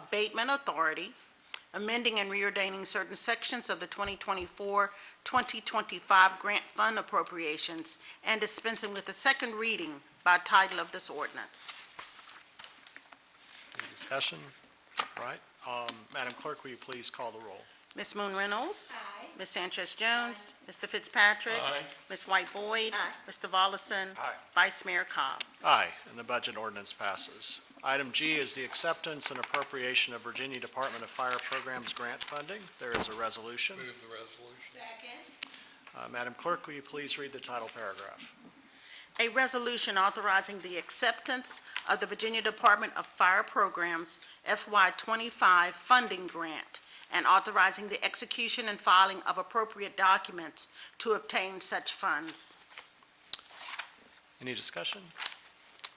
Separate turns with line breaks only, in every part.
Abatement Authority, amending and reordaining certain sections of the 2024-2025 grant fund appropriations, and dispensing with the second reading by title of this ordinance.
Any discussion? All right. Um, Madam Clerk, will you please call the roll?
Ms. Moon Reynolds? Aye. Ms. Sanchez Jones? Mr. Fitzpatrick?
Aye.
Ms. White Boyd? Aye. Mr. Volleson?
Aye.
Vice Mayor Cobb?
Aye, and the budget ordinance passes. Item G is the acceptance and appropriation of Virginia Department of Fire Programs grant funding. There is a resolution.
Move the resolution.
Second.
Uh, Madam Clerk, will you please read the title paragraph?
A resolution authorizing the acceptance of the Virginia Department of Fire Programs FY25 funding grant and authorizing the execution and filing of appropriate documents to obtain such funds.
Any discussion?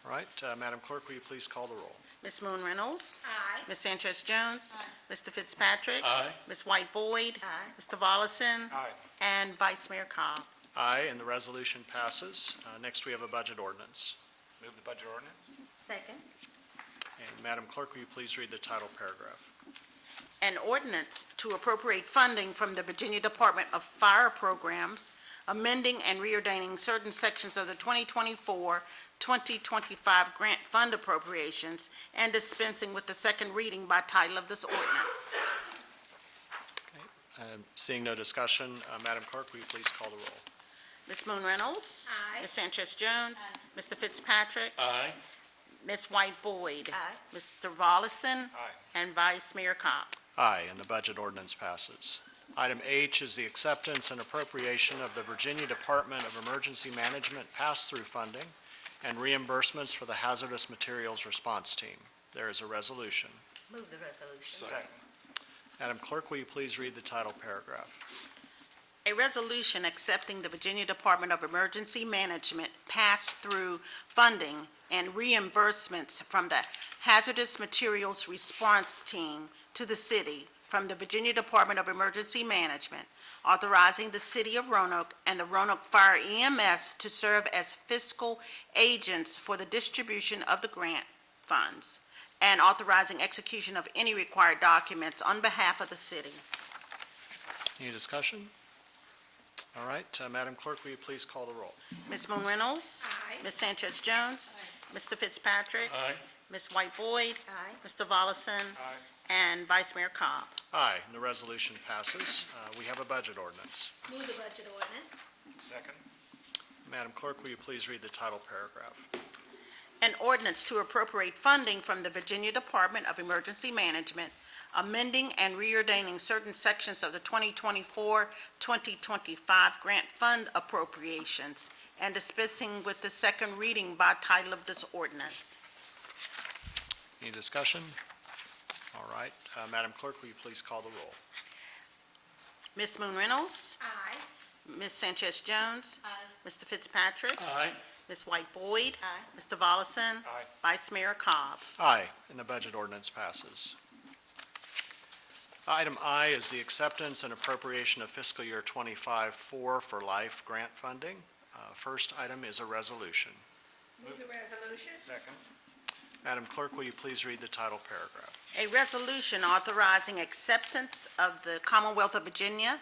All right, uh, Madam Clerk, will you please call the roll?
Ms. Moon Reynolds?
Aye.
Ms. Sanchez Jones? Mr. Fitzpatrick?
Aye.
Ms. White Boyd?
Aye.
Mr. Volleson?
Aye.
And Vice Mayor Cobb.
Aye, and the resolution passes. Uh, Next, we have a budget ordinance.
Move the budget ordinance.
Second.
And Madam Clerk, will you please read the title paragraph?
An ordinance to appropriate funding from the Virginia Department of Fire Programs, amending and reordaining certain sections of the 2024-2025 grant fund appropriations, and dispensing with the second reading by title of this ordinance.
Um, Seeing no discussion, uh, Madam Clerk, will you please call the roll?
Ms. Moon Reynolds?
Aye.
Ms. Sanchez Jones? Mr. Fitzpatrick?
Aye.
Ms. White Boyd?
Aye.
Mr. Volleson?
Aye.
And Vice Mayor Cobb.
Aye, and the budget ordinance passes. Item H is the acceptance and appropriation of the Virginia Department of Emergency Management pass-through funding and reimbursements for the hazardous materials response team. There is a resolution.
Move the resolution.
Second.
Madam Clerk, will you please read the title paragraph?
A resolution accepting the Virginia Department of Emergency Management pass-through funding and reimbursements from the Hazardous Materials Response Team to the city from the Virginia Department of Emergency Management, authorizing the city of Roanoke and the Roanoke Fire EMS to serve as fiscal agents for the distribution of the grant funds, and authorizing execution of any required documents on behalf of the city.
Any discussion? All right, uh, Madam Clerk, will you please call the roll?
Ms. Moon Reynolds?
Aye.
Ms. Sanchez Jones? Mr. Fitzpatrick?
Aye.
Ms. White Boyd?
Aye.
Mr. Volleson? And Vice Mayor Cobb.
Aye, and the resolution passes. Uh, We have a budget ordinance.
Move the budget ordinance.
Second.
Madam Clerk, will you please read the title paragraph?
An ordinance to appropriate funding from the Virginia Department of Emergency Management, amending and reordaining certain sections of the 2024-2025 grant fund appropriations, and dispensing with the second reading by title of this ordinance.
Any discussion? All right, uh, Madam Clerk, will you please call the roll?
Ms. Moon Reynolds?
Aye.
Ms. Sanchez Jones?
Aye.
Mr. Fitzpatrick?
Aye.
Ms. White Boyd?
Aye.
Mr. Volleson?
Aye.
Vice Mayor Cobb.
Aye, and the budget ordinance passes. Item I is the acceptance and appropriation of fiscal year 25-4 for life grant funding. Uh, First item is a resolution.
Move the resolution.
Second.
Madam Clerk, will you please read the title paragraph?
A resolution authorizing acceptance of the Commonwealth of Virginia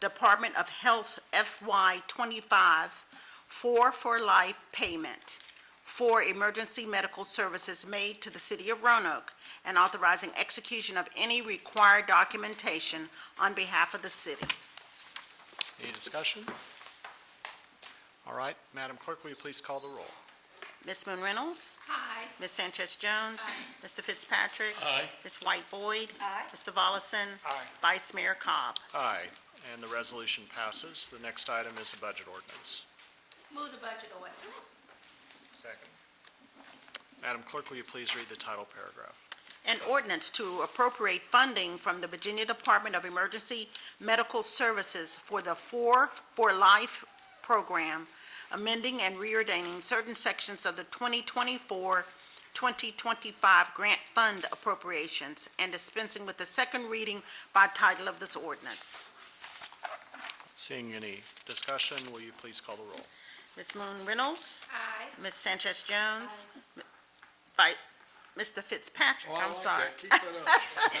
Department of Health FY 25 Four for Life payment for emergency medical services made to the city of Roanoke and authorizing execution of any required documentation on behalf of the city.
Any discussion? All right, Madam Clerk, will you please call the roll?
Ms. Moon Reynolds?
Aye.
Ms. Sanchez Jones? Mr. Fitzpatrick?
Aye.
Ms. White Boyd?
Aye.
Mr. Volleson?
Aye.
Vice Mayor Cobb.
Aye, and the resolution passes. The next item is a budget ordinance.
Move the budget ordinance.
Second.
Madam Clerk, will you please read the title paragraph?
An ordinance to appropriate funding from the Virginia Department of Emergency Medical Services for the Four for Life program, amending and reordaining certain sections of the 2024-2025 grant fund appropriations, and dispensing with the second reading by title of this ordinance.
Seeing any discussion, will you please call the roll?
Ms. Moon Reynolds?
Aye.
Ms. Sanchez Jones? Vi- Mr. Fitzpatrick, I'm sorry.
Keep it up.